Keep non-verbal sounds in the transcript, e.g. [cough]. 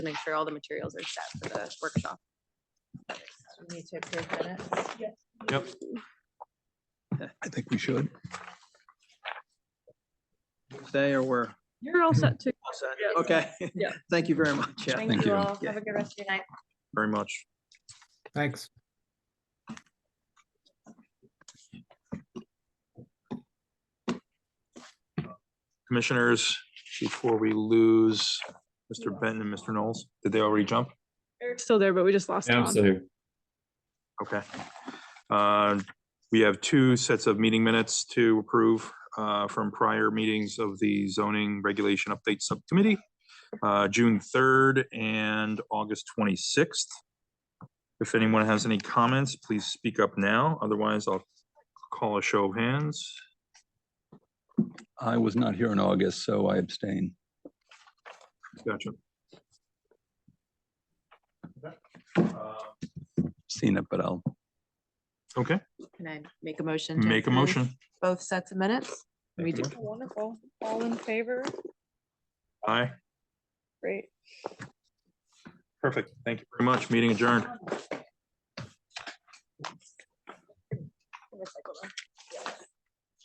to make sure all the materials are set for the workshop. We need to approve minutes. Yep. I think we should. Stay or we're. You're all set too. Okay. Yeah. [laughs] Thank you very much. Yeah. Thank Thank you you. all. Yeah. Have a good rest of your night. Very much. Thanks. Commissioners, before we lose Mr. Benton and Mr. Knowles, did they already jump? Eric's still there, but we just lost Yeah, I'm Don. still here. Okay. Uh, We have two sets of meeting minutes to approve uh, from prior meetings of the zoning regulation update subcommittee, uh, June 3rd and August 26th. If anyone has any comments, please speak up now. Otherwise, I'll call a show of hands. I was not here in August, so I abstain. Gotcha. Seen it, but I'll, Okay, Can I make a motion? to make a approve motion. Both sets of minutes? We do. Wonderful. All in favor? Aye. Great. Perfect. Thank you very much. Meeting adjourned.